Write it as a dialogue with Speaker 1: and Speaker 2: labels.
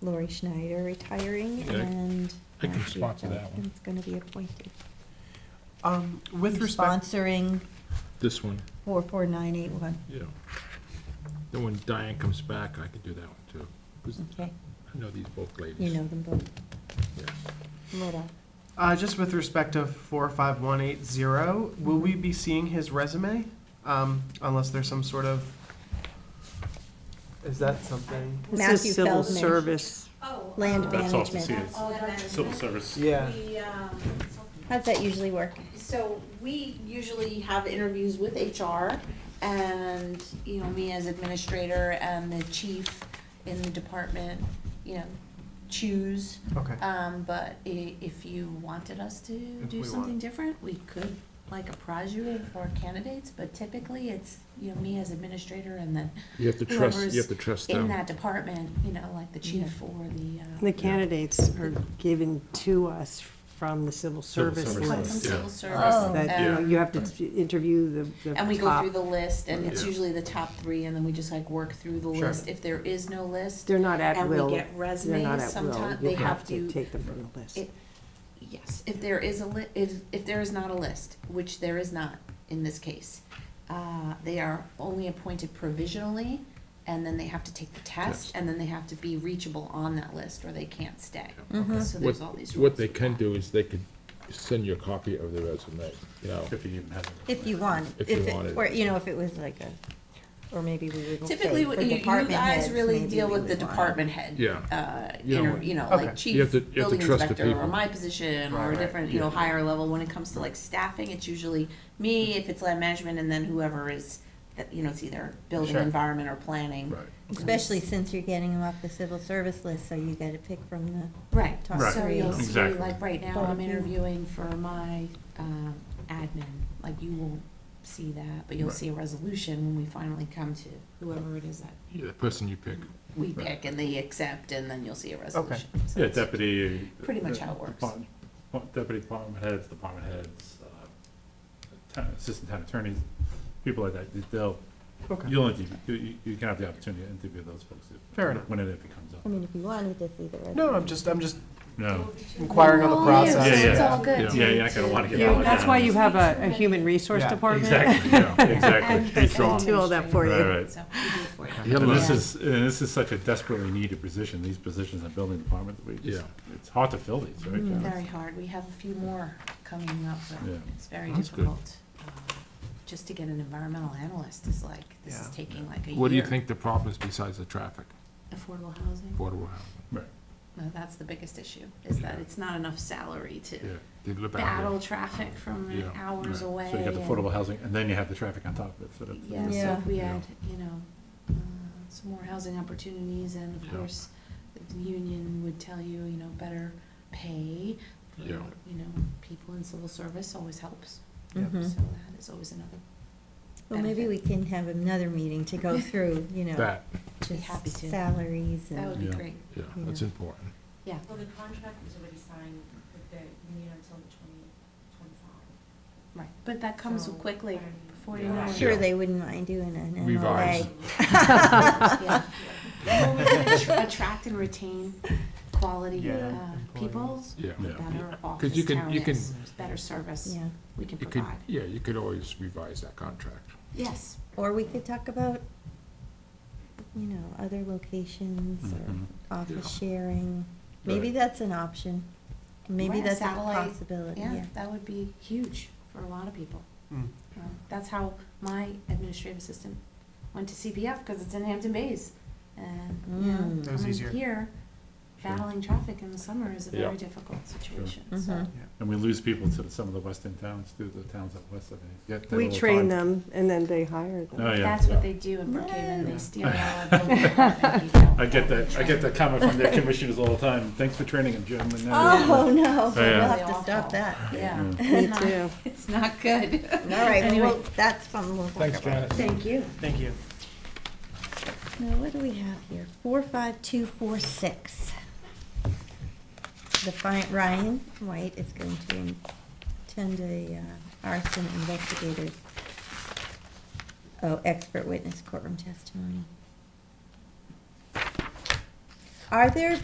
Speaker 1: Lori Schneider retiring
Speaker 2: Yeah, I-
Speaker 1: and.
Speaker 2: I can
Speaker 1: Matthew
Speaker 2: sponsor that one.
Speaker 1: Duncan's gonna be appointed.
Speaker 3: Um, with
Speaker 1: You're
Speaker 3: respect,
Speaker 1: Sponsoring
Speaker 2: This one,
Speaker 1: four four nine eight one,
Speaker 2: yeah. Then when Diane comes back, I can do that one too. 'Cause
Speaker 1: okay,
Speaker 2: I know these both ladies.
Speaker 1: you know them both,
Speaker 2: Yeah.
Speaker 1: Laura.
Speaker 3: uh, just with respect to four five one eight zero, will we be seeing his resume? Um, unless there's some sort of, is that something?
Speaker 4: This
Speaker 1: Matthew
Speaker 4: is civil
Speaker 1: Feldman.
Speaker 4: service.
Speaker 5: Oh.
Speaker 1: Land
Speaker 5: um,
Speaker 6: That's all to see
Speaker 1: management.
Speaker 6: is
Speaker 5: Oh, the management.
Speaker 6: civil service.
Speaker 3: Yeah.
Speaker 5: We, um,
Speaker 1: How's that usually work?
Speaker 5: so we usually have interviews with HR and, you know, me as administrator and the chief in the department, you know, choose.
Speaker 3: Okay.
Speaker 5: Um, but i- if you wanted us to
Speaker 3: If we
Speaker 5: do
Speaker 3: want.
Speaker 5: something different, we could like apprise you of our candidates, but typically it's, you know, me as administrator and then
Speaker 2: You have to trust,
Speaker 5: whoever's
Speaker 2: you have to trust
Speaker 5: in
Speaker 2: them.
Speaker 5: that department, you know, like the chief or the, uh.
Speaker 4: The candidates are given to us from the civil service
Speaker 2: service
Speaker 5: From
Speaker 2: list.
Speaker 4: list.
Speaker 5: civil
Speaker 2: Yeah.
Speaker 1: Oh.
Speaker 5: service,
Speaker 4: That, you know,
Speaker 5: and,
Speaker 4: you have to interview the, the
Speaker 5: and we go
Speaker 4: top.
Speaker 5: through the list, and it's
Speaker 2: Yeah.
Speaker 5: usually the top three, and then we just like work through the
Speaker 3: Sure.
Speaker 5: list, if there is no list,
Speaker 4: They're not at
Speaker 5: and we
Speaker 4: will.
Speaker 5: get
Speaker 4: They're not
Speaker 5: resumes,
Speaker 4: at will.
Speaker 5: sometimes,
Speaker 4: You
Speaker 5: they have
Speaker 4: to
Speaker 5: to,
Speaker 4: take them from the list.
Speaker 5: it- yes, if there is a li- if, if there is not a list, which there is not in this case, uh, they are only appointed provisionally, and then they have to take the
Speaker 2: Yes.
Speaker 5: test, and then they have to be reachable on that list, or they can't stay,
Speaker 2: Yeah.
Speaker 4: Mm-hmm.
Speaker 5: so
Speaker 2: What,
Speaker 5: there's all these rules.
Speaker 2: what they can do is they could send you a copy of the resume, you know.
Speaker 6: If you even have. it.
Speaker 1: If you want.
Speaker 2: If you
Speaker 1: it-
Speaker 2: wanted.
Speaker 1: Or, you know, if it was like a, or maybe we would say
Speaker 5: Typically,
Speaker 1: for
Speaker 5: what you, you
Speaker 1: department
Speaker 5: guys
Speaker 1: heads,
Speaker 5: really
Speaker 1: maybe
Speaker 5: deal
Speaker 1: we
Speaker 5: with the
Speaker 1: would want-
Speaker 5: department head.
Speaker 2: Yeah.
Speaker 5: Uh,
Speaker 2: You know
Speaker 5: inter-
Speaker 2: what-
Speaker 5: you know,
Speaker 3: Okay.
Speaker 5: like
Speaker 2: You have to-
Speaker 5: chief,
Speaker 2: you have to
Speaker 5: building
Speaker 2: trust the
Speaker 5: inspector, or
Speaker 2: people.
Speaker 5: my position,
Speaker 3: Right,
Speaker 5: or a
Speaker 3: right.
Speaker 5: different, you know,
Speaker 2: Yeah.
Speaker 5: higher level. When it comes to like staffing, it's usually me, if it's land management, and then whoever is, that you know, it's either building,
Speaker 3: Sure.
Speaker 5: environment, or planning.
Speaker 2: Right.
Speaker 1: Especially since you're getting them off the civil service list, so you gotta pick from the
Speaker 5: Right,
Speaker 1: Top
Speaker 6: Right.
Speaker 5: so you'll
Speaker 6: three.
Speaker 5: see,
Speaker 6: Exactly.
Speaker 5: like, right now,
Speaker 1: Bob,
Speaker 5: I'm
Speaker 1: you-
Speaker 5: interviewing for my, um, admin, like, you won't see that, but you'll
Speaker 2: Right.
Speaker 5: see a resolution when we finally come to whoever it is that
Speaker 2: Yeah, the person you pick.
Speaker 5: we
Speaker 2: Right.
Speaker 5: pick and they accept, and then you'll see a resolution. So
Speaker 6: Yeah,
Speaker 5: it's-
Speaker 6: deputy. uh,
Speaker 5: Pretty much how it works.
Speaker 6: depart- depart- Deputy department heads, department heads, uh, town- assistant town attorneys, people like that, they'll,
Speaker 3: Okay.
Speaker 6: you'll interview, you- you, you can have the opportunity to interview those folks. if-
Speaker 3: Fair enough.
Speaker 6: When and if it comes up.
Speaker 1: I mean, if you wanted to see the resume.
Speaker 3: No, I'm just, I'm just
Speaker 6: No,
Speaker 3: inquiring on the
Speaker 5: Oh, yeah, so
Speaker 3: process.
Speaker 6: Yeah,
Speaker 5: It's
Speaker 6: yeah.
Speaker 5: all good.
Speaker 6: yeah, yeah, I kinda wanna get
Speaker 4: You-
Speaker 6: all that.
Speaker 4: That's why you have a, a human
Speaker 3: Yeah,
Speaker 4: resource department.
Speaker 6: Exactly, yeah, exactly.
Speaker 4: And
Speaker 6: He's strong.
Speaker 4: do all that for you.
Speaker 6: Right, right.
Speaker 5: So we do it for you.
Speaker 2: Yeah,
Speaker 6: And
Speaker 2: but-
Speaker 6: this is, and this is such a desperately needed position, these positions in building department, we just, it's hard to fill these, right?
Speaker 4: Mm.
Speaker 6: John?
Speaker 5: Very hard. We have a few more coming up, but
Speaker 6: Yeah.
Speaker 5: it's very
Speaker 2: That's good.
Speaker 5: difficult. Um, Just to get an environmental analyst is like, this is
Speaker 3: Yeah.
Speaker 5: taking like a year.
Speaker 2: What do you think the problem is besides the traffic,
Speaker 5: Affordable housing?
Speaker 2: affordable housing?
Speaker 6: Right,
Speaker 5: No, that's the biggest issue, is that it's not enough salary to
Speaker 2: Yeah, they live out
Speaker 5: battle
Speaker 2: here.
Speaker 5: traffic from
Speaker 2: Yeah.
Speaker 5: hours
Speaker 6: right.
Speaker 5: away.
Speaker 6: So you got the
Speaker 5: and-
Speaker 6: affordable housing, and then you have the traffic on top of it, so that's.
Speaker 5: Yeah, so
Speaker 1: Yeah.
Speaker 5: if we
Speaker 6: Yeah.
Speaker 5: had, you know, uh, some more housing opportunities and of
Speaker 2: Yeah.
Speaker 5: course, the union would tell you, you know, better pay. for,
Speaker 2: Yeah.
Speaker 5: You know, people in civil service always helps, so
Speaker 1: Mhm.
Speaker 5: that is always another,
Speaker 1: Well, maybe
Speaker 5: benefit.
Speaker 1: we can have another meeting to go through, you know,
Speaker 2: That,
Speaker 5: Be happy
Speaker 1: just
Speaker 5: to.
Speaker 1: salaries
Speaker 5: that would
Speaker 1: and,
Speaker 5: be
Speaker 6: Yeah.
Speaker 5: great,
Speaker 2: yeah, that's important.
Speaker 5: yeah.
Speaker 7: Well, the contract was already signed with the union until the twenty twenty-five.
Speaker 5: Right, but that comes
Speaker 7: So,
Speaker 5: quickly,
Speaker 7: um,
Speaker 5: before you
Speaker 2: Yeah.
Speaker 5: know
Speaker 1: I'm
Speaker 5: it.
Speaker 1: sure they wouldn't mind doing an
Speaker 2: Revised.
Speaker 1: MOA.
Speaker 5: Yeah. Well, we wanna tr- Attract and retain quality
Speaker 3: Yeah,
Speaker 5: uh, people,
Speaker 2: Yeah.
Speaker 6: Yeah.
Speaker 5: better
Speaker 2: Because you
Speaker 5: office
Speaker 2: can- you can-
Speaker 5: towns, better service
Speaker 1: Yeah,
Speaker 5: we can
Speaker 2: You could,
Speaker 5: provide.
Speaker 2: yeah, you could always revise that contract.
Speaker 5: Yes,
Speaker 1: or we could talk about, you know, other locations
Speaker 6: Mhm.
Speaker 1: or office
Speaker 2: Yeah.
Speaker 1: sharing. Maybe
Speaker 2: Right.
Speaker 1: that's an option. Maybe
Speaker 5: Right,
Speaker 1: that's a
Speaker 5: satellite,
Speaker 1: possibility,
Speaker 5: yeah,
Speaker 1: yeah.
Speaker 5: that would be huge for a lot of people.
Speaker 3: Mm.
Speaker 5: Um, That's how my administrative assistant went to CPF, because it's in Hampton Bays. And, you know,
Speaker 1: Mm.
Speaker 3: That was
Speaker 5: coming
Speaker 3: easier.
Speaker 5: here,
Speaker 2: Sure.
Speaker 5: battling traffic in the summer is a
Speaker 2: Yeah.
Speaker 5: very difficult situation, so.
Speaker 1: Mhm.
Speaker 6: And we lose people to some of the western towns, to the towns up west of it.
Speaker 4: We train them and then they hire them.
Speaker 6: Oh, yeah.
Speaker 5: That's what they do in Brookhaven,
Speaker 3: Yeah.
Speaker 5: they steal all of the.
Speaker 6: I get that, I get that comment from their commissioners all the time, thanks for training them, Jim. and now
Speaker 1: Oh, no,
Speaker 6: Oh, yeah.
Speaker 1: we'll have to stop that.
Speaker 5: Yeah.
Speaker 6: Yeah.
Speaker 4: Me too.
Speaker 5: It's not good.
Speaker 1: All right, well,
Speaker 5: Anyway.
Speaker 1: well, that's something we'll talk about.
Speaker 5: Thank you.
Speaker 3: Thank you.
Speaker 1: Now, what do we have here? Four, five, two, four, six. The fine, Ryan White is going to attend a uh, arson investigator's, oh, expert witness courtroom testimony. Are there